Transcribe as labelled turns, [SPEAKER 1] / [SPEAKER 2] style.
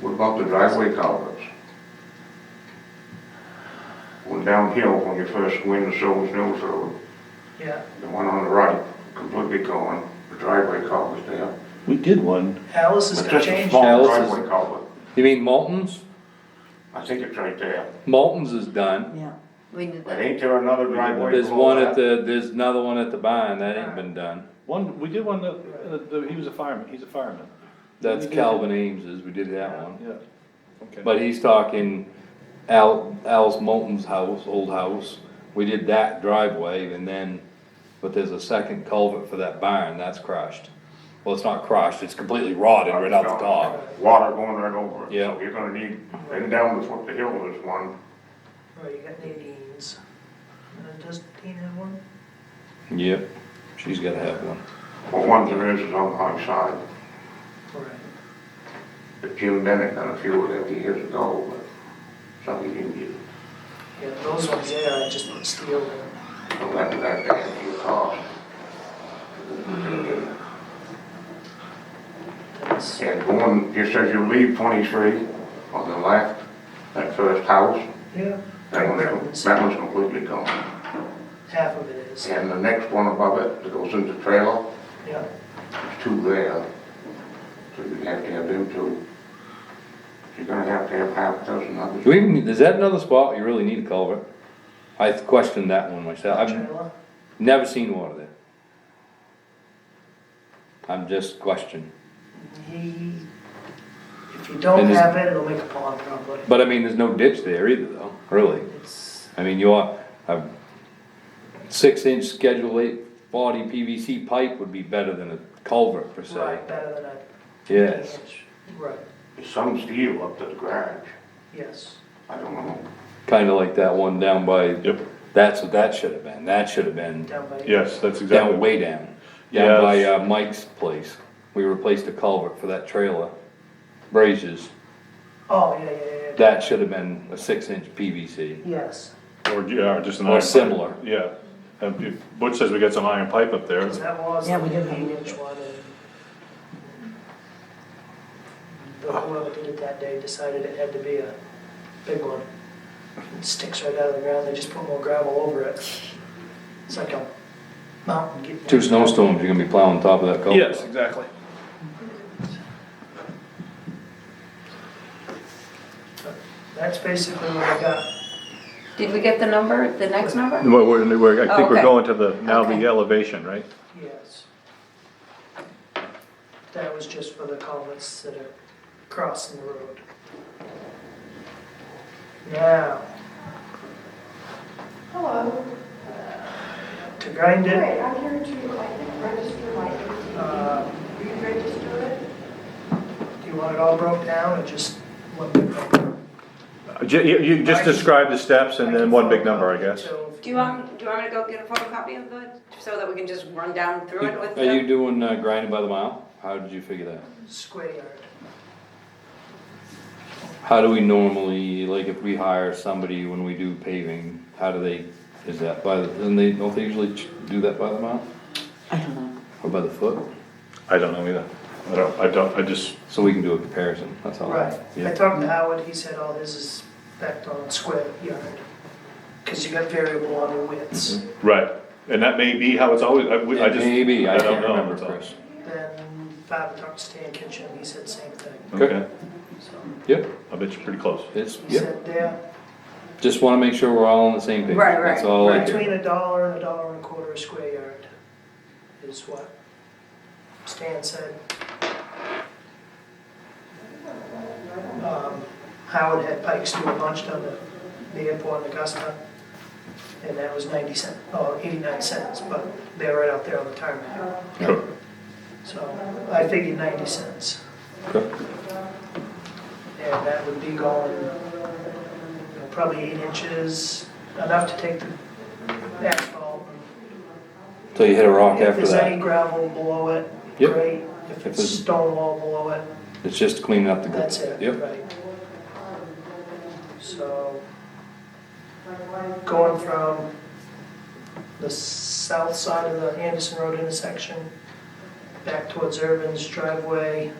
[SPEAKER 1] What about the driveway culverts? One downhill when you first go in the Silver Mills Road,
[SPEAKER 2] Yeah,
[SPEAKER 1] the one on the right, completely gone, the driveway culvert's there.
[SPEAKER 3] We did one.
[SPEAKER 2] Alice is
[SPEAKER 1] But
[SPEAKER 2] gonna
[SPEAKER 1] just a
[SPEAKER 2] change
[SPEAKER 1] small
[SPEAKER 2] that.
[SPEAKER 4] Alice is-
[SPEAKER 1] driveway culvert,
[SPEAKER 4] You mean Moulton's?
[SPEAKER 1] I think it's right there.
[SPEAKER 4] Moulton's is done.
[SPEAKER 5] Yeah,
[SPEAKER 6] We did
[SPEAKER 1] But
[SPEAKER 6] that.
[SPEAKER 1] ain't there another driveway?
[SPEAKER 4] There's
[SPEAKER 1] below
[SPEAKER 4] one at
[SPEAKER 1] that?
[SPEAKER 4] the, there's another one at the barn, that ain't been done.
[SPEAKER 3] One, we did one that, uh, the- he was a fireman, he's a fireman.
[SPEAKER 4] That's Calvin Ames's, we did that one.
[SPEAKER 3] Yeah. Okay.
[SPEAKER 4] But he's talking Al, Al's Moulton's house, old house. We did that driveway and then, but there's a second culvert for that barn, that's crushed. Well, it's not crushed, it's completely rotted right out the top.
[SPEAKER 1] Water going right over it.
[SPEAKER 4] Yeah.
[SPEAKER 1] So You're gonna need, and down the foot of the hill, there's one,
[SPEAKER 2] Right, you got Nadine's. And does Nadine have one?
[SPEAKER 4] Yep, she's gotta have one.
[SPEAKER 1] well, one there is is on the high side.
[SPEAKER 2] Right.
[SPEAKER 1] But Jim Bennett done a few of them years ago, but something you can get.
[SPEAKER 2] Yeah, those ones there, I just put steel in.
[SPEAKER 1] Well, that, that, that would be a cost.
[SPEAKER 2] That's-
[SPEAKER 1] And going, just as you leave twenty-three on the left, that first house,
[SPEAKER 2] Yeah.
[SPEAKER 1] that one's, that one's completely gone.
[SPEAKER 2] Half of it is,
[SPEAKER 1] And the next one above it, that goes into trailer,
[SPEAKER 2] yeah.
[SPEAKER 1] there's two there. So you have to have them two. You're gonna have to have half a dozen
[SPEAKER 4] Do
[SPEAKER 1] others.
[SPEAKER 4] we even, is that another spot you really need a culvert? I questioned that one myself. I've
[SPEAKER 2] Trailer.
[SPEAKER 4] never seen water there. I'm just questioning.
[SPEAKER 2] He, if you don't
[SPEAKER 4] And is-
[SPEAKER 2] have it, it'll make a pond probably.
[SPEAKER 4] But I mean, there's no ditch there either though, really.
[SPEAKER 2] It's,
[SPEAKER 4] I mean, your, a six inch schedule eight forty PVC pipe would be better than a culvert per se.
[SPEAKER 2] right, better than a.
[SPEAKER 4] Yes.
[SPEAKER 2] inch. Right,
[SPEAKER 1] There's Some steel up to the garage,
[SPEAKER 2] yes.
[SPEAKER 1] I don't know.
[SPEAKER 4] Kinda like that one down by,
[SPEAKER 3] Yep,
[SPEAKER 4] that's what that should have been. That should have been
[SPEAKER 2] Down by.
[SPEAKER 3] yes, that's
[SPEAKER 4] down
[SPEAKER 3] exactly.
[SPEAKER 4] way down. Down by
[SPEAKER 3] Yes.
[SPEAKER 4] uh, Mike's place. We replaced a culvert for that trailer. Braziers.
[SPEAKER 2] Oh, yeah, yeah, yeah, yeah.
[SPEAKER 4] That should have been a six inch PVC.
[SPEAKER 2] Yes,
[SPEAKER 3] Or, yeah, or just an
[SPEAKER 4] Or
[SPEAKER 3] iron. pipe.
[SPEAKER 4] similar.
[SPEAKER 3] Yeah. And if- Butch says we got some iron pipe up there.
[SPEAKER 2] because that was
[SPEAKER 5] Yeah,
[SPEAKER 2] like
[SPEAKER 5] we
[SPEAKER 2] an
[SPEAKER 5] did have
[SPEAKER 2] eight
[SPEAKER 5] it.
[SPEAKER 2] inch one and. The whoever did it that day decided it had to be a big one. It sticks right out of the ground, they just put more gravel over it. It's like a mountain. getting-
[SPEAKER 4] Two snowstorms, you're gonna be plowing top of that culvert.
[SPEAKER 3] Yes, exactly.
[SPEAKER 2] That's basically what I got.
[SPEAKER 6] Did we get the number, the next number?
[SPEAKER 3] Well, we're, we're, I think we're
[SPEAKER 6] Okay.
[SPEAKER 3] going to the, now the
[SPEAKER 6] Okay.
[SPEAKER 3] elevation, right?
[SPEAKER 2] Yes. That was just for the culverts that are crossing the road. Now. Hello. To grind it,
[SPEAKER 7] Great, I'm here to, I think, register my ATV.
[SPEAKER 2] uh,
[SPEAKER 7] Re-register it.
[SPEAKER 2] do you want it all broke down or just one big number?
[SPEAKER 3] Uh, ju- You, you just
[SPEAKER 2] I can-
[SPEAKER 3] describe the steps and
[SPEAKER 2] I
[SPEAKER 3] then
[SPEAKER 2] can
[SPEAKER 3] one big
[SPEAKER 2] photocopy
[SPEAKER 3] number, I
[SPEAKER 2] it
[SPEAKER 3] guess.
[SPEAKER 2] till-
[SPEAKER 6] Do you want, do you want me to go get a photocopy of the, so that we can just run down through it with
[SPEAKER 4] Are you
[SPEAKER 6] them?
[SPEAKER 4] doing uh, grinding by the mile? How did you figure that?
[SPEAKER 2] Square yard.
[SPEAKER 4] How do we normally, like if we hire somebody when we do paving, how do they, is that by the, then they, don't they usually ch- do that by the mile?
[SPEAKER 5] I don't know.
[SPEAKER 4] Or by the foot?
[SPEAKER 3] I don't know either. I don't, I don't, I just,
[SPEAKER 4] So we can do a comparison, that's all.
[SPEAKER 2] Right, I
[SPEAKER 4] Oh, Yeah.
[SPEAKER 2] talked to Howard, he said all his is backed on square yard. Cause you got variable on your widths.
[SPEAKER 3] right. And that may be how it's always, I, we- I just.
[SPEAKER 4] Maybe, I
[SPEAKER 3] don't
[SPEAKER 4] can't
[SPEAKER 3] know,
[SPEAKER 4] remember,
[SPEAKER 3] that's all.
[SPEAKER 4] Chris.
[SPEAKER 2] Then Bob talked to Stan Kitchen, he said same thing,
[SPEAKER 3] Okay,
[SPEAKER 2] so.
[SPEAKER 4] Yep,
[SPEAKER 3] I bet you're pretty close.
[SPEAKER 4] it's,
[SPEAKER 2] He
[SPEAKER 4] yep,
[SPEAKER 2] said there,
[SPEAKER 4] just wanna make sure we're all on the same page.
[SPEAKER 6] Right, right,
[SPEAKER 4] That's all I
[SPEAKER 2] between
[SPEAKER 4] do.
[SPEAKER 2] a dollar and a dollar and a quarter a square yard is what Stan said. Um, Howard had Pikes do a bunch down at the airport in Augusta, and that was ninety cent, oh, eighty-nine cents, but they're right out there on the tarmac.
[SPEAKER 4] Sure.
[SPEAKER 2] So I figured ninety cents.
[SPEAKER 4] Okay.
[SPEAKER 2] And that would be going, you know, probably eight inches, enough to take the asphalt.
[SPEAKER 4] So you hit a rock
[SPEAKER 2] If
[SPEAKER 4] after
[SPEAKER 2] there's any
[SPEAKER 4] that,
[SPEAKER 2] gravel below it,
[SPEAKER 4] Yep.
[SPEAKER 2] great. If it's
[SPEAKER 4] there's-
[SPEAKER 2] stone wall below it,
[SPEAKER 4] it's just cleaning up the.
[SPEAKER 2] that's it,
[SPEAKER 4] Yep,
[SPEAKER 2] right? So, going from the south side of the Anderson Road intersection back towards Irvin's driveway,